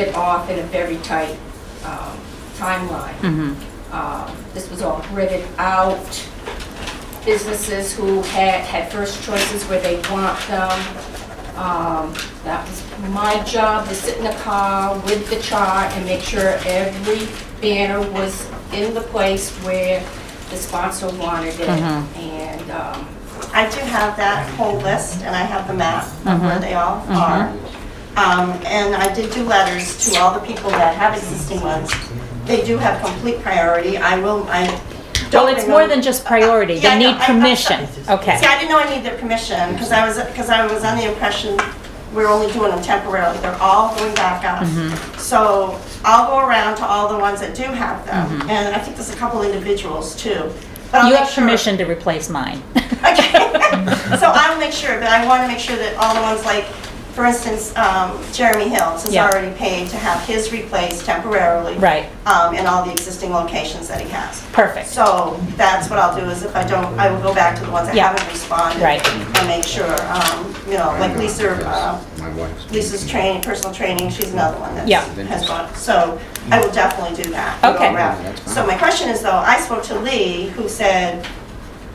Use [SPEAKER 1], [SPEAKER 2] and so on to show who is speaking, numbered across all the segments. [SPEAKER 1] it off in a very tight um,
[SPEAKER 2] Mm-hmm.
[SPEAKER 1] timeline. Um, This was all gridded out, businesses who had, had first choices where they want them. Um, That was my job, to sit in the car with the chart and make sure every banner was in the place where the sponsor wanted it.
[SPEAKER 2] Mm-hmm.
[SPEAKER 1] And um,
[SPEAKER 3] I do have that whole list, and I have the map of
[SPEAKER 2] Mm-hmm.
[SPEAKER 3] where they all are. Um, And I did do letters to all the people that have existing ones. They do have complete priority. I will, I don't...
[SPEAKER 2] Well, it's more
[SPEAKER 3] remember-
[SPEAKER 2] than just priority,
[SPEAKER 3] Yeah, I
[SPEAKER 2] they
[SPEAKER 3] know.
[SPEAKER 2] need
[SPEAKER 3] I- I'm
[SPEAKER 2] permission,
[SPEAKER 3] sorry. See,
[SPEAKER 2] okay.
[SPEAKER 3] I didn't know I needed their permission, because I was, because I was on the impression we're only doing them temporarily. They're all going back up.
[SPEAKER 2] Mm-hmm.
[SPEAKER 3] So I'll go around to all the ones that do have them, and I think there's a couple individuals, too. But I'll
[SPEAKER 2] Mm-hmm. You
[SPEAKER 3] make
[SPEAKER 2] have
[SPEAKER 3] sure-
[SPEAKER 2] permission to replace mine.
[SPEAKER 3] Okay, so I'll make sure, but I want to make sure that all the ones like, for instance, um, Jeremy Hills is
[SPEAKER 2] Yeah.
[SPEAKER 3] already paid to have his replaced temporarily.
[SPEAKER 2] Right.
[SPEAKER 3] Um, in all the existing locations that he has.
[SPEAKER 2] Perfect,
[SPEAKER 3] So that's what I'll do is if I don't, I will go back to the ones that
[SPEAKER 2] Yeah.
[SPEAKER 3] haven't responded.
[SPEAKER 2] Right.
[SPEAKER 3] And make sure, um, you know, like Lisa, uh,
[SPEAKER 4] My wife's.
[SPEAKER 3] Lisa's training, personal training, she's another one that
[SPEAKER 2] Yeah.
[SPEAKER 3] has gone. So I will definitely do that. and go
[SPEAKER 2] Okay.
[SPEAKER 3] around.
[SPEAKER 4] That's fine.
[SPEAKER 3] So my question is though, I spoke to Lee, who said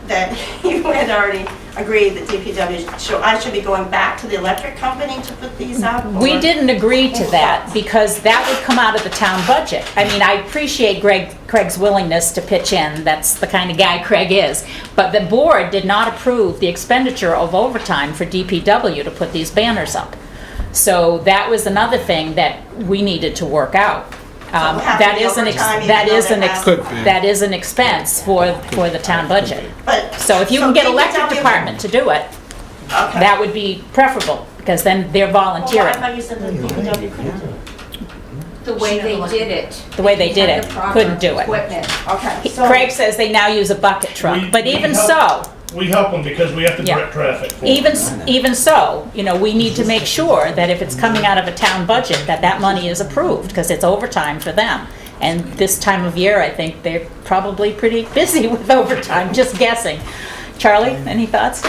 [SPEAKER 3] that you had already agreed that DPW, should I should be going back to the electric company to put these up?
[SPEAKER 2] we
[SPEAKER 3] or-
[SPEAKER 2] didn't agree to that, because that would come out of the town budget. I mean, I appreciate Greg, Craig's willingness to pitch in, that's the kind of guy Craig is, but the board did not approve the expenditure of overtime for DPW to put these banners up. So that was another thing that we needed to work out. Um,
[SPEAKER 3] we'll have
[SPEAKER 2] That
[SPEAKER 3] to be
[SPEAKER 2] is an, ex-
[SPEAKER 3] overtime even
[SPEAKER 2] that
[SPEAKER 3] though
[SPEAKER 2] is
[SPEAKER 3] they
[SPEAKER 2] an,
[SPEAKER 3] have-
[SPEAKER 2] ex-
[SPEAKER 3] Could
[SPEAKER 2] that is an expense for, for the town budget.
[SPEAKER 3] But-
[SPEAKER 2] So if you can get electric
[SPEAKER 3] DPW
[SPEAKER 2] department to do it,
[SPEAKER 3] Okay.
[SPEAKER 2] that would be preferable, because then they're
[SPEAKER 3] Well, I
[SPEAKER 2] volunteering,
[SPEAKER 3] thought you said that DPW couldn't do it.
[SPEAKER 1] the way they did it.
[SPEAKER 2] the way they did
[SPEAKER 1] had
[SPEAKER 2] it,
[SPEAKER 1] the proper
[SPEAKER 2] couldn't do it.
[SPEAKER 1] Equipment.
[SPEAKER 3] Okay,
[SPEAKER 2] He-
[SPEAKER 3] so.
[SPEAKER 2] Craig says they now use a bucket truck,
[SPEAKER 5] We-
[SPEAKER 2] but
[SPEAKER 5] we
[SPEAKER 2] even so,
[SPEAKER 5] help- We help them because we have to
[SPEAKER 2] Yeah.
[SPEAKER 5] direct traffic for them.
[SPEAKER 2] even, s- even so, you know, we need to make sure that if it's coming out of a town budget, that that money is approved, because it's overtime for them. And this time of year, I think they're probably pretty busy with overtime, just guessing. Charlie, any thoughts?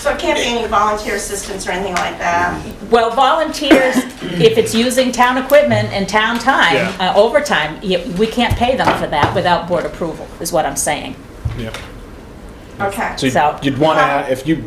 [SPEAKER 3] So it can't be any volunteer assistance or anything like that?
[SPEAKER 2] Well, volunteers, if it's using town equipment and town time,
[SPEAKER 5] Yeah.
[SPEAKER 2] uh, overtime, y- we can't pay them for that without board approval, is what I'm saying.
[SPEAKER 3] Okay.
[SPEAKER 6] So, you'd-
[SPEAKER 2] So-
[SPEAKER 6] you'd want to, if you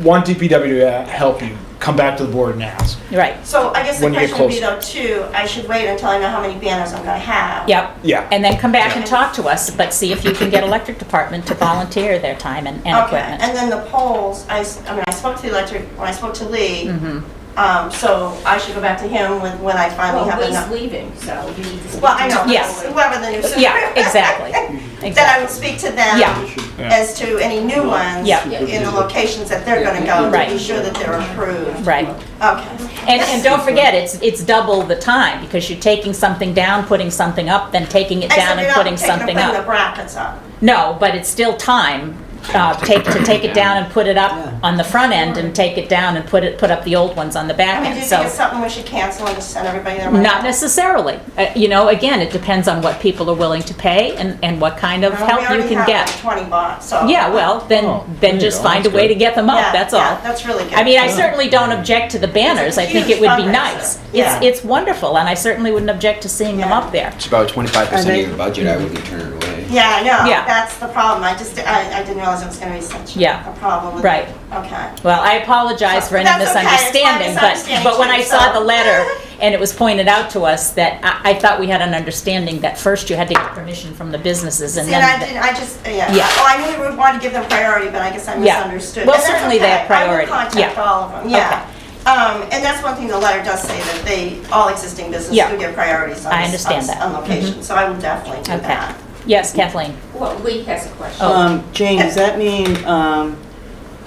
[SPEAKER 6] want DPW to help you, come back to the board and ask.
[SPEAKER 2] Right,
[SPEAKER 3] So I guess the
[SPEAKER 6] When you get
[SPEAKER 3] question would be though, too, I should wait until I know how many banners I'm gonna have.
[SPEAKER 2] yep.
[SPEAKER 6] Yeah.
[SPEAKER 2] And then come back and talk to us, but see if you can get electric department to volunteer their time and and
[SPEAKER 3] Okay,
[SPEAKER 2] equipment.
[SPEAKER 3] and then the polls, I, s- I mean, I spoke to the electric, when I spoke to Lee,
[SPEAKER 2] Mm-hmm.
[SPEAKER 3] um, so I should go back to him when, when I finally have
[SPEAKER 1] Well,
[SPEAKER 3] enough.
[SPEAKER 1] Lee's leaving, so you need to speak
[SPEAKER 3] Well, I
[SPEAKER 1] to
[SPEAKER 3] know,
[SPEAKER 2] Yes.
[SPEAKER 3] whoever the new super.
[SPEAKER 2] Yeah, exactly,
[SPEAKER 3] That I
[SPEAKER 2] exactly.
[SPEAKER 3] would speak to them
[SPEAKER 2] Yeah.
[SPEAKER 3] as to any new ones
[SPEAKER 2] Yeah.
[SPEAKER 3] in the locations that they're gonna go, to be
[SPEAKER 2] Right.
[SPEAKER 3] sure that they're approved.
[SPEAKER 2] Right.
[SPEAKER 3] Okay,
[SPEAKER 2] And, and don't forget, it's, it's double the time, because you're taking something down, putting something up, then taking it
[SPEAKER 3] except
[SPEAKER 2] down
[SPEAKER 3] you're
[SPEAKER 2] and
[SPEAKER 3] not
[SPEAKER 2] putting
[SPEAKER 3] taking,
[SPEAKER 2] something
[SPEAKER 3] putting the
[SPEAKER 2] up.
[SPEAKER 3] brackets up.
[SPEAKER 2] No, but it's still time, uh, take, to take it down and put it up on the front end, and take it down and put it, put up the old ones on the
[SPEAKER 3] I
[SPEAKER 2] back
[SPEAKER 3] mean, do
[SPEAKER 2] end,
[SPEAKER 3] you
[SPEAKER 2] so.
[SPEAKER 3] think it's something we should cancel and just send everybody their money?
[SPEAKER 2] Not necessarily. Uh, You know, again, it depends on what people are willing to pay and, and what kind of
[SPEAKER 3] Well,
[SPEAKER 2] help
[SPEAKER 3] we
[SPEAKER 2] you
[SPEAKER 3] already
[SPEAKER 2] can
[SPEAKER 3] have like
[SPEAKER 2] get.
[SPEAKER 3] 20 bucks, so.
[SPEAKER 2] Yeah, well,
[SPEAKER 6] Oh,
[SPEAKER 2] then,
[SPEAKER 6] there
[SPEAKER 2] then
[SPEAKER 6] you
[SPEAKER 2] just
[SPEAKER 6] go.
[SPEAKER 2] find a
[SPEAKER 6] That's
[SPEAKER 2] way to
[SPEAKER 6] good.
[SPEAKER 2] get them
[SPEAKER 3] Yeah,
[SPEAKER 2] up, that's
[SPEAKER 3] yeah,
[SPEAKER 2] all.
[SPEAKER 3] That's really good.
[SPEAKER 2] I mean, I certainly don't object to the banners. I think it would be
[SPEAKER 3] huge
[SPEAKER 2] nice.
[SPEAKER 3] fundraiser.
[SPEAKER 2] It's,
[SPEAKER 3] Yeah.
[SPEAKER 2] it's wonderful, and I certainly wouldn't object to seeing them
[SPEAKER 3] Yeah.
[SPEAKER 2] up there.
[SPEAKER 4] It's about twenty-five percent
[SPEAKER 7] And
[SPEAKER 4] of
[SPEAKER 7] they-
[SPEAKER 4] your budget, I wouldn't turn it away.
[SPEAKER 3] Yeah, I know,
[SPEAKER 2] Yeah.
[SPEAKER 3] that's the problem, I just, I, I didn't realize it was gonna be such
[SPEAKER 2] Yeah.
[SPEAKER 3] a problem with it.
[SPEAKER 2] Right.
[SPEAKER 3] Okay.
[SPEAKER 2] Well, I apologize for any
[SPEAKER 3] That's okay. It's my
[SPEAKER 2] misunderstanding, but,
[SPEAKER 3] misunderstanding
[SPEAKER 2] but when I
[SPEAKER 3] too,
[SPEAKER 2] saw
[SPEAKER 3] so-
[SPEAKER 2] the letter and it was pointed out to us that I, I thought we had an understanding that first you had to get permission from the businesses and
[SPEAKER 3] See,
[SPEAKER 2] then.
[SPEAKER 3] and I
[SPEAKER 2] the-
[SPEAKER 3] didn't, I just, yeah,
[SPEAKER 2] Yeah.
[SPEAKER 3] well, I knew we would want to give them priority, but I guess I
[SPEAKER 2] Yeah.
[SPEAKER 3] misunderstood.
[SPEAKER 2] Well,
[SPEAKER 3] But that's
[SPEAKER 2] certainly they
[SPEAKER 3] okay.
[SPEAKER 2] have priority.
[SPEAKER 3] I will contact
[SPEAKER 2] Yeah.
[SPEAKER 3] all of them, yeah. Um, and that's one thing the letter does say, that they, all existing businesses
[SPEAKER 2] Yeah.
[SPEAKER 3] do get priorities on. this-
[SPEAKER 2] I understand
[SPEAKER 3] on-
[SPEAKER 2] that. Mm-hmm.
[SPEAKER 3] On location, so I will definitely do
[SPEAKER 2] Okay.
[SPEAKER 3] that.
[SPEAKER 2] Yes, Kathleen?
[SPEAKER 1] Well, Lee has a
[SPEAKER 2] Oh,
[SPEAKER 1] question.
[SPEAKER 7] Um, Jane, does that mean, um,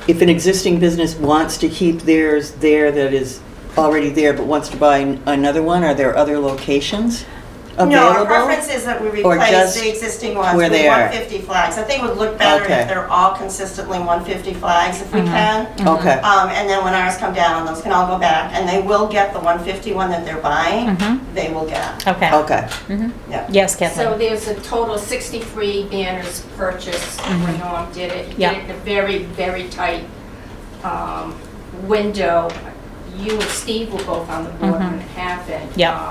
[SPEAKER 7] if an existing business wants to keep theirs there that is already there but wants to buy an- another one, are there other locations available?
[SPEAKER 3] No, our preference is that we
[SPEAKER 7] Or
[SPEAKER 3] replace
[SPEAKER 7] just
[SPEAKER 3] the existing ones
[SPEAKER 7] where
[SPEAKER 3] with
[SPEAKER 7] they are?
[SPEAKER 3] 150 flags. I think it would look better
[SPEAKER 7] Okay.
[SPEAKER 3] if they're all consistently 150 flags if we
[SPEAKER 2] Mm-hmm.
[SPEAKER 3] can.
[SPEAKER 7] Okay,
[SPEAKER 3] Um, and then when ours come down, those can all go back, and they will get the 150 one that they're buying, they will get.
[SPEAKER 2] Okay.
[SPEAKER 7] okay.
[SPEAKER 3] Yeah.
[SPEAKER 2] Yes, Kathleen?
[SPEAKER 1] So there's a total of 63 banners purchased when Norm did it. He did
[SPEAKER 2] Mm-hmm. Yeah.
[SPEAKER 1] it in a very, very tight um, window. You and Steve were both on the board when it happened.
[SPEAKER 2] Mm-hmm. Yeah.